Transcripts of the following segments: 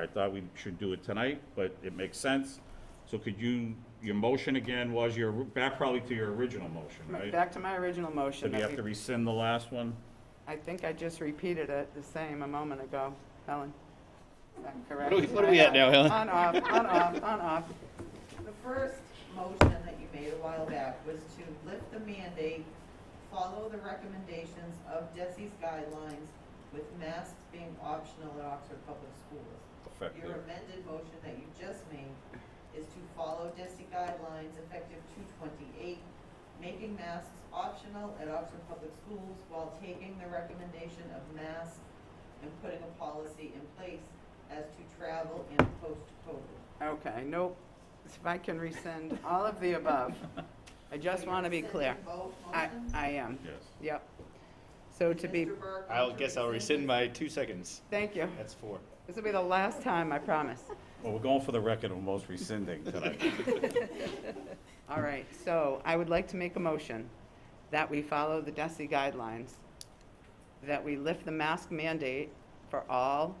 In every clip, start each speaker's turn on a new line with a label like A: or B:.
A: I thought we should do it tonight, but it makes sense. So could you, your motion again was your, back probably to your original motion, right?
B: Back to my original motion.
A: Did we
B: that
A: have
B: we-
A: to rescind the last one?
B: I think I just repeated it the same a moment ago, Helen. Is that correct?
C: What are we- what are we at now, Helen?
B: On, off, on, off, on, off.
D: The first motion that you made a while back was to lift the mandate, follow the recommendations of DESI's guidelines with masks being optional at Oxford Public Schools. Your
A: Effective.
D: amended motion that you just made is to follow DESI guidelines effective two twenty-eight, making masks optional at Oxford Public Schools while taking the recommendation of masks and putting a policy in place as to travel in post-COVID.
B: Okay, nope. If I can rescind all of the above. I just want to be clear. I, I am,
A: Yes.
B: yep. So to be,
C: I guess I'll rescind my two seconds.
B: thank you.
C: That's four.
B: This will be the last time, I promise.
A: Well, we're going for the record of most rescinding tonight.
B: All right, so I would like to make a motion that we follow the DESI guidelines, that we lift the mask mandate for all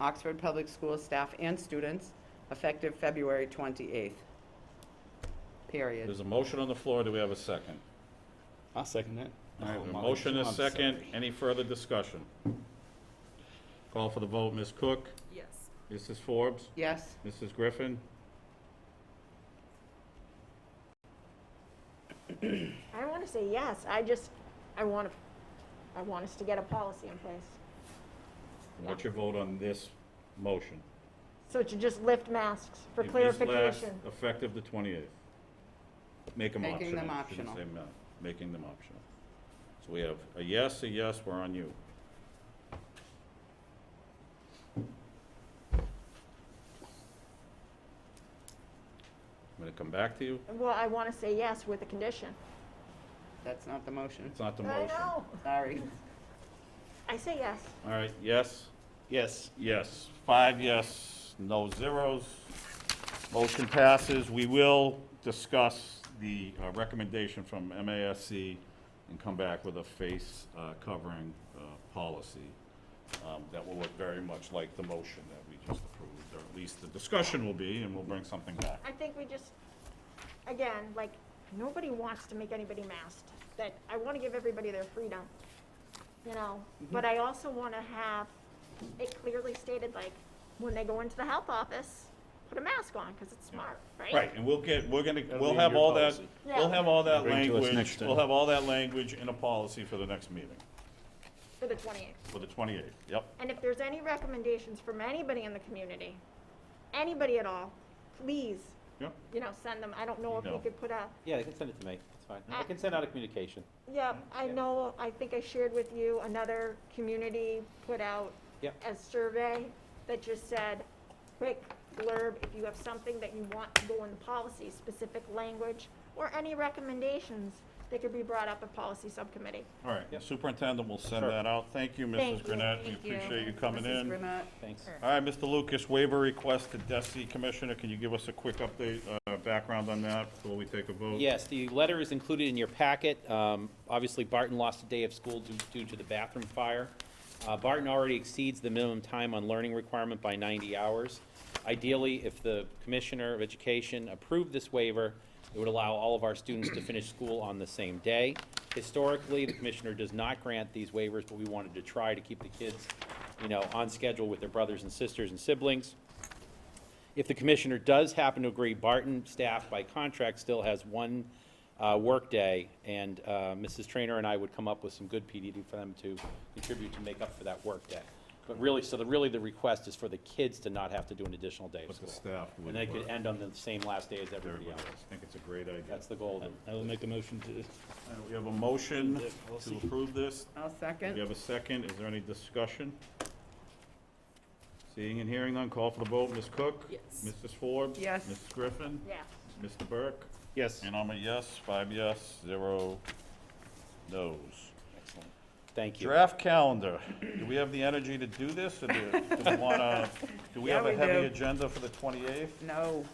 B: Oxford Public School staff and students effective February 28th. Period.
A: There's a motion on the floor. Do we have a second?
C: I'll second that.
A: All right, a motion is second. Any further discussion? Call for the vote. Ms. Cook?
D: Yes.
A: Mrs. Forbes?
B: Yes,
A: Mrs. Griffin?
E: I want to say yes, I just, I want to, I want us to get a policy in place.
A: What's your vote on this motion?
E: So to just lift masks for
A: If this lasts,
E: clarification.
A: Effective the 28th. Make them optional.
B: Making them
A: I shouldn't
B: optional.
A: say ma- Making them optional. So we have a yes, a yes, we're on you. I'm going to come back to you.
E: Well, I want to say yes with a condition.
B: that's not the motion,
A: It's not the
E: I
A: motion.
E: know,
B: sorry.
E: I say yes.
A: All right, yes,
C: Yes.
A: yes. Five yes, no zeros. Motion passes. We will discuss the uh, recommendation from MASC and come back with a face uh, covering uh, policy um, that will look very much like the motion that we just approved, or at least the discussion will be, and we'll bring something back.
E: I think we just, again, like, nobody wants to make anybody masked, that I want to give everybody their freedom, you know?
A: Mm-hmm.
E: But I also want to have it clearly stated, like, when they go into the health office, put a mask on, because it's smart, right?
A: Right, and we'll get, we're gonna,
C: That'll
A: we'll
C: be in
A: have
C: your
A: all that,
C: policy.
A: we'll have all that
C: Bring to us
A: language,
C: next time.
A: we'll have all that language in a policy for the next meeting,
E: For the 28th.
A: for the 28th, yep.
E: And if there's any recommendations from anybody in the community, anybody at all, please,
A: Yep.
E: you know, send them. I don't know if
A: No.
E: you could put a,
F: Yeah, they can send it to me, it's fine. I
E: Uh,
F: can send out a communication.
E: yeah, I know, I think I shared with you, another community put out
F: Yep.
E: a survey that just said, quick blurb, if you have something that you want to go in the policy, specific language, or any recommendations that could be brought up at policy subcommittee.
A: All right,
F: Yep.
A: Superintendent will send
F: Sure.
A: that out. Thank you, Mrs.
E: Thank you.
A: Grenat. We
E: Thank you.
A: appreciate you coming
B: Mrs.
A: in.
B: Brunette?
F: Thanks.
A: All right, Mr. Lucas, waiver request to DESI Commissioner. Can you give us a quick update, uh, background on that before we take a vote?
F: Yes, the letter is included in your packet. Um, Obviously, Barton lost a day of school due- due to the bathroom fire. Uh, Barton already exceeds the minimum time on learning requirement by 90 hours. Ideally, if the Commissioner of Education approved this waiver, it would allow all of our students to finish school on the same day. Historically, the Commissioner does not grant these waivers, but we wanted to try to keep the kids, you know, on schedule with their brothers and sisters and siblings. If the commissioner does happen to agree, Barton staff by contract still has one uh, workday, and uh, Mrs. Trainer and I would come up with some good PDD for them to contribute to make up for that workday. But really, so the, really the request is for the kids to not have to do an additional day of
A: But the
F: school.
A: staff would
F: And they could
A: work.
F: end on the same last day as
A: Everybody
F: everybody
A: else.
F: else.
A: I think it's a great idea.
F: That's the goal. of
G: I will make a motion to,
A: All right, We have a motion to approve this.
B: I'll
A: We
B: second.
A: have a second. Is there any discussion? Seeing and hearing none, call for the vote. Ms. Cook? Yes. Mrs. Forbes?
B: Yes.
A: Mrs. Griffin?
E: Yes.
A: Mr. Burke?
C: Yes.
A: And I'm a yes, five yes, zero no's.
F: Excellent. Thank you.
A: Draft calendar. Do we have the energy to do this, or do do we want to, do we
B: Yeah,
A: have a
B: we
A: heavy
B: do.
A: agenda for the 28th?
B: No,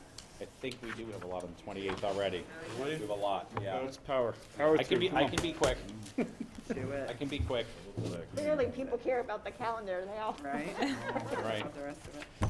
F: I think we do have a lot on the 28th already. We have a lot, yeah.
C: It's power. Power
F: I can
C: through,
F: be,
C: come
F: I
C: on.
F: can be quick.
B: do
F: I
B: it,
F: can be quick,
E: Clearly, people care about the calendar. They all
B: right?
F: All right?
B: All the rest of it.